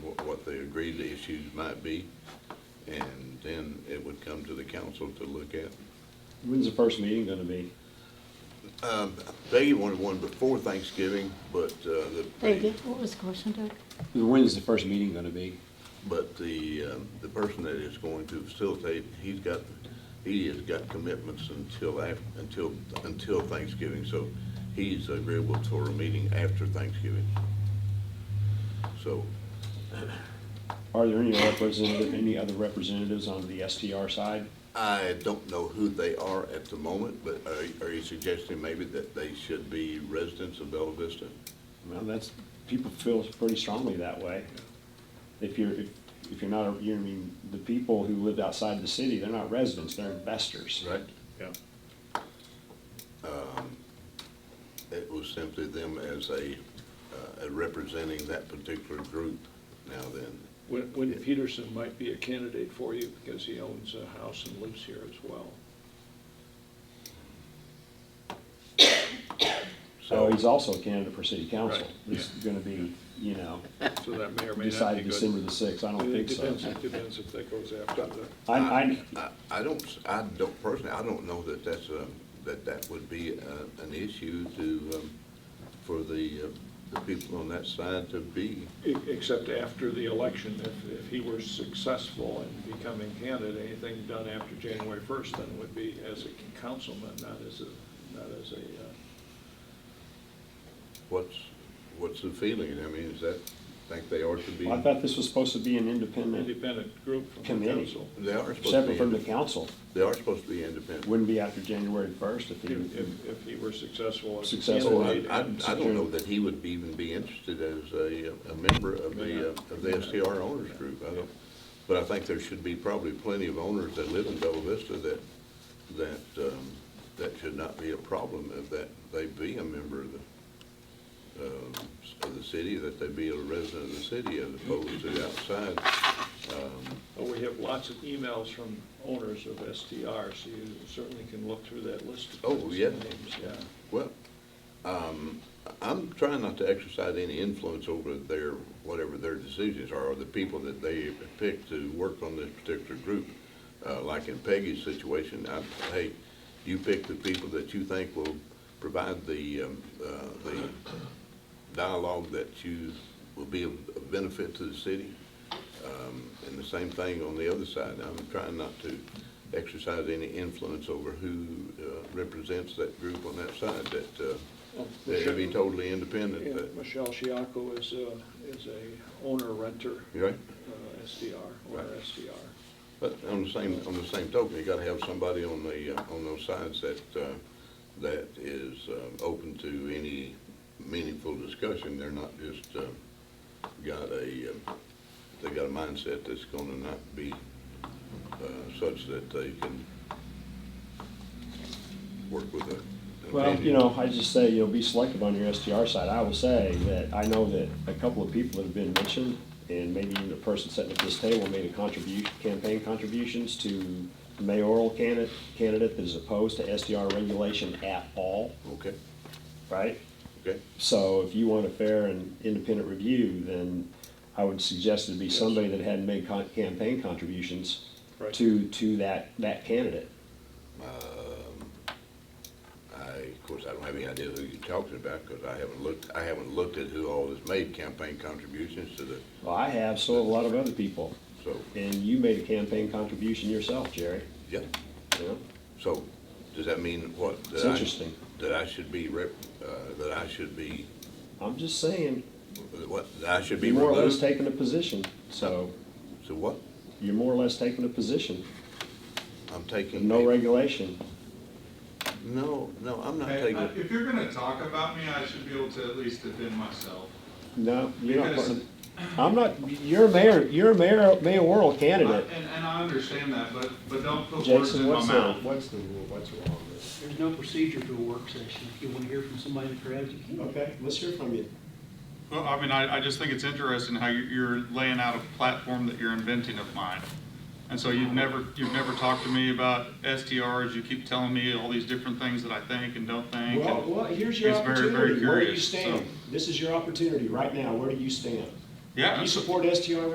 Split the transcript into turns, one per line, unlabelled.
agree the issues might be, and then it would come to the council to look at.
When's the first meeting gonna be?
They wanted one before Thanksgiving, but, uh, the.
David, what was the question, Doug?
When is the first meeting gonna be?
But the, um, the person that is going to facilitate, he's got, he has got commitments until af, until, until Thanksgiving, so he's agreeable to a meeting after Thanksgiving. So,
Are there any representative, any other representatives on the STR side?
I don't know who they are at the moment, but are, are you suggesting maybe that they should be residents of Bella Vista?
Well, that's, people feel pretty strongly that way. If you're, if, if you're not, a- you know, I mean, the people who live outside the city, they're not residents, they're investors.
Right.
Yeah.
It was simply them as a, uh, representing that particular group now then.
Win- Win Peterson might be a candidate for you because he owns a house and lives here as well.
So
So,
he's also a candidate for city council.
Right,
He's gonna be, you know,
So that may or may not be
decided
good.
December the sixth, I don't
It
think so.
depends, it depends if that goes after the,
I, I,
I, I don't, s- I don't personally, I don't know that that's a, that that would be a, an issue to, um, for the, uh, the people on that side to be.
e- except after the election, if, if he were successful in becoming candidate, anything done after January first then would be as a councilman, not as a, not as a, uh,
What's, what's the feeling? I mean, is that, think they are to be?
I thought this was supposed to be an independent,
independent group from the
Committee.
council.
They are supposed to be,
separate from the
inde-
council.
they are supposed to be independent.
Wouldn't be after January first if
If,
he,
if- if he were successful as a
So
Successful.
I,
candidate.
I,
and-
I don't know that he would be- even be interested as a, a member of the, uh, of the STR owners group. I don't, but I think there should be probably plenty of owners that live in Bella Vista that, that, um, that should not be a problem if that, they be a member of the, um, of the city, that they be a resident of the city as opposed to outside.
Well, we have lots of emails from owners of STR, so you certainly can look through that list. of
Oh, yeah.
names, Yeah.
Well, um, I'm trying not to exercise any influence over their, whatever their decisions are, or the people that they pick to work on this particular group. Uh, like in Peggy's situation, I, hey, you pick the people that you think will provide the, um, uh, the dialogue that you, will be of of benefit to the city. Um, and the same thing on the other side. I'm trying not to exercise any influence over who, uh, represents that group on that side, that, uh,
Well,
they should be
Oh, Michelle-
totally independent,
yeah,
but,
Michelle Shiako is a, is a owner renter,
you right?
uh, STR, owner
Right.
STR.
But on the same, on the same token, you gotta have somebody on the, uh, on those sides that, uh, that is, uh, open to any meaningful discussion. They're not just, uh, got a, uh, they got a mindset that's gonna not be, uh, such that they can work with a. an
well, you
opinion.
know, I just say, you know, be selective on your STR side. I will say that I know that a couple of people have been mentioned, and maybe even the person sitting at this table made a contribution, campaign contributions to the mayoral candidate, candidate that is opposed to STR regulation at all,
Okay,
right?
okay.
So if you want a fair and independent review, then I would suggest it'd be somebody that hadn't made con- campaign contributions
Right.
to, to that, that candidate.
I, of course, I don't have any idea who you're talking about, because I haven't looked, I haven't looked at who all has made campaign contributions to the,
Well, I have, so have a lot of other people.
so,
And you made a campaign contribution yourself, Jerry.
yeah.
you know?
So, does that mean what?
It's
that I-
interesting.
That I should be rep, uh, that I should be,
I'm just saying,
what, that I should be
you're more or less
removed?
taking a position. So
So what?
you're more or less taking a position.
I'm taking.
No
a-
regulation.
No, no, I'm not
Hey, I-
taking,
If you're gonna talk about me, I should be able to at least defend myself.
No, you're not.
Because-
part of- I'm not, you're a mayor, you're a mayor, mayoral
I-
candidate.
And, and I understand that, but, but don't put words in
Jason,
my
what's the,
mouth.
what's the rule? What's wrong with
There's no procedure to a work session. If you want to hear from somebody in the crowd, you
it?
can.
Okay, let's hear from you.
Well, I mean, I, I just think it's interesting how you- you're laying out a platform that you're inventing of mine. And so you've never, you've never talked to me about STRs, you keep telling me all these different things that I think and don't think.
Well,
and-
well, here's your
It's very, very
opportunity. Where do you
curious, so-
stand? This is your opportunity right now. Where do you stand?
Yeah.
Do you support STR